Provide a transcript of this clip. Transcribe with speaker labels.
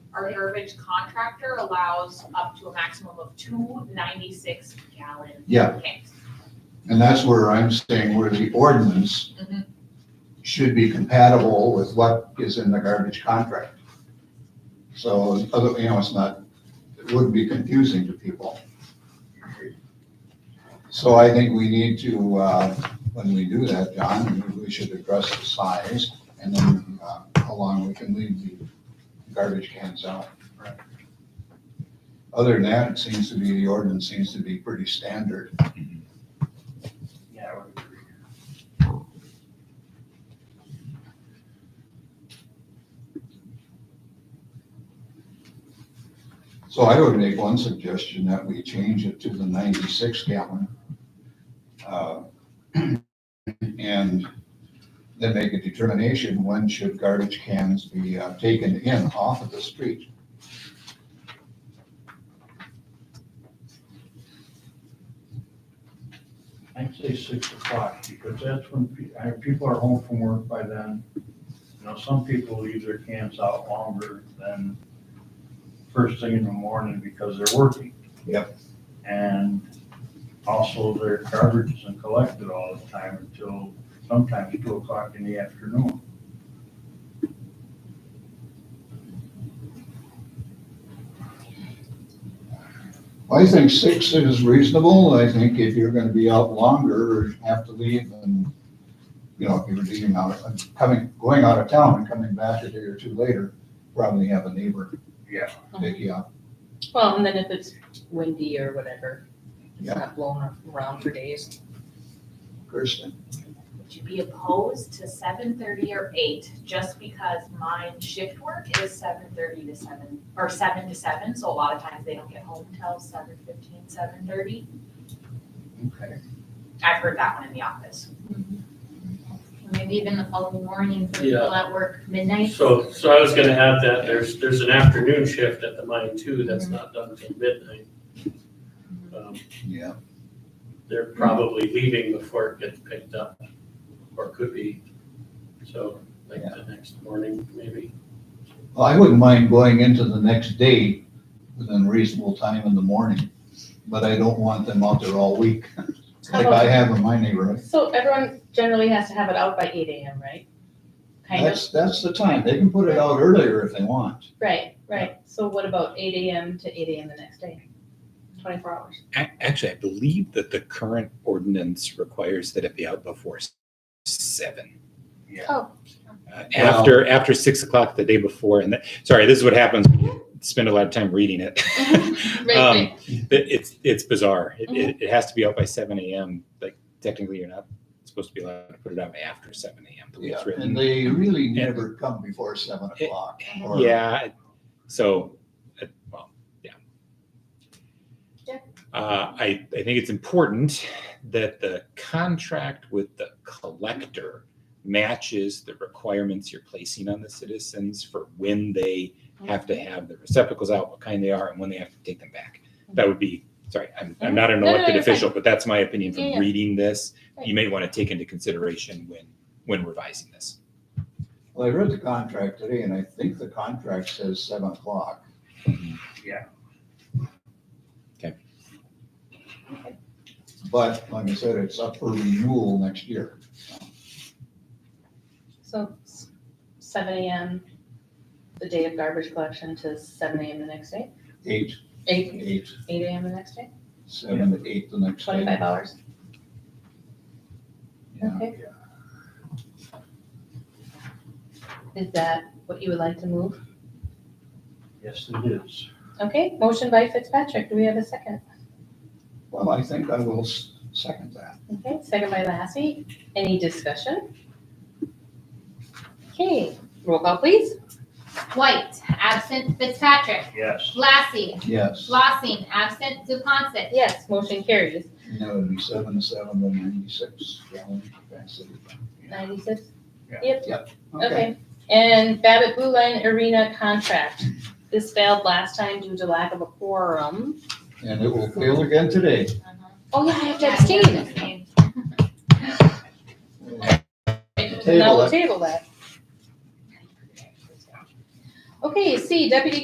Speaker 1: our heritage contractor allows up to a maximum of two ninety-six gallon
Speaker 2: Yeah.
Speaker 1: tanks.
Speaker 2: And that's where I'm saying where the ordinance
Speaker 1: Mhm.
Speaker 2: should be compatible with what is in the garbage contract. So, other, you know, it's not, it wouldn't be confusing to people. So I think we need to, uh, when we do that, John, we should address the size and then, uh, how long we can leave the garbage cans out. Other than that, it seems to be, the ordinance seems to be pretty standard.
Speaker 3: Yeah, I would agree.
Speaker 2: So I would make one suggestion that we change it to the ninety-six gallon. uh, And then make a determination when should garbage cans be uh, taken in off of the street.
Speaker 3: I'd say six o'clock, because that's when pe- I- people are home from work by then. You know, some people leave their cans out longer than first thing in the morning because they're working.
Speaker 2: Yep.
Speaker 3: And also their garbage isn't collected all the time until sometimes two o'clock in the afternoon.
Speaker 2: I think six is reasonable. I think if you're gonna be out longer or have to leave and, you know, if you're leaving out, coming, going out of town and coming back a day or two later, probably have a neighbor
Speaker 3: Yeah.
Speaker 2: pick you up.
Speaker 4: Well, and then if it's windy or whatever, it's
Speaker 2: Yeah.
Speaker 4: not blowing around for days.
Speaker 2: Kirsten?
Speaker 1: Would you be opposed to seven thirty or eight, just because mine shift work is seven thirty to seven, or seven to seven, so a lot of times they don't get home till seven fifteen, seven thirty.
Speaker 2: Okay.
Speaker 1: I've heard that one in the office.
Speaker 5: Maybe even the following morning for
Speaker 6: Yeah.
Speaker 5: people at work midnight.
Speaker 6: So, so I was gonna have that, there's, there's an afternoon shift at the mine too, that's not done till midnight. Um,
Speaker 2: Yeah.
Speaker 6: They're probably leaving before it gets picked up, or could be, so like the next morning, maybe.
Speaker 2: Well, I wouldn't mind going into the next day within reasonable time in the morning, but I don't want them out there all week, like I have in my neighborhood.
Speaker 4: So everyone generally has to have it out by eight AM, right? Kind of,
Speaker 2: That's, that's the time. They can put it out earlier if they want.
Speaker 4: right, right. So what about eight AM to eight AM the next day? Twenty-four hours.
Speaker 7: A- Actually, I believe that the current ordinance requires that it be out before s- seven.
Speaker 3: Yeah.
Speaker 4: Oh.
Speaker 7: Uh, After, after six o'clock the day before, and that, sorry, this is what happens, when you spend a lot of time reading it. Um, it- It's, it's bizarre. It, it, it has to be out by seven AM, like technically you're not supposed to be allowed to put it out after seven AM, the way it's
Speaker 2: And
Speaker 7: written.
Speaker 2: they really never come before seven o'clock. or-
Speaker 7: Yeah, it- so, it- well, yeah.
Speaker 4: Yeah.
Speaker 7: Uh, I, I think it's important that the contract with the collector matches the requirements you're placing on the citizens for when they have to have the receptacles out, what kind they are, and when they have to take them back. That would be, sorry, I'm, I'm not an
Speaker 4: Mm-hmm. No, no, no,
Speaker 7: elected
Speaker 4: you're fine.
Speaker 7: official, but that's my opinion
Speaker 4: Yeah,
Speaker 7: from
Speaker 4: yeah.
Speaker 7: reading this.
Speaker 4: Right.
Speaker 7: You may want to take into consideration when, when revising this.
Speaker 2: Well, I read the contract today and I think the contract says seven o'clock.
Speaker 3: Yeah.
Speaker 7: Okay.
Speaker 2: But like I said, it's up for renewal next year.
Speaker 4: So s- seven AM, the day of garbage collection to seven AM the next day,
Speaker 2: Eight,
Speaker 4: eight,
Speaker 2: eight,
Speaker 4: eight AM the next day,
Speaker 2: seven to eight the next day.
Speaker 4: twenty-five hours.
Speaker 2: Yeah.
Speaker 4: Okay. Is that what you would like to move?
Speaker 3: Yes, it is.
Speaker 4: Okay, motion by Fitzpatrick, do we have a second?
Speaker 2: Well, I think I will s- second that.
Speaker 4: Okay, second by Lassie, any discussion? Okay, roll call please.
Speaker 5: White, absent Fitzpatrick.
Speaker 3: Yes.
Speaker 5: Lassie,
Speaker 2: Yes.
Speaker 5: Flossing, absent Zupansett.
Speaker 4: Yes, motion carries,
Speaker 2: And that would be seven to seven to ninety-six gallon capacity.
Speaker 4: ninety-six.
Speaker 3: Yeah.
Speaker 4: Yep, okay, and Babbitt Blue Line Arena contract, this failed last time due to lack of a quorum.
Speaker 2: And it will fail again today.
Speaker 4: Oh yeah, I have to abstain, now
Speaker 2: Table
Speaker 4: we'll
Speaker 2: it.
Speaker 4: table that. Okay, C, Deputy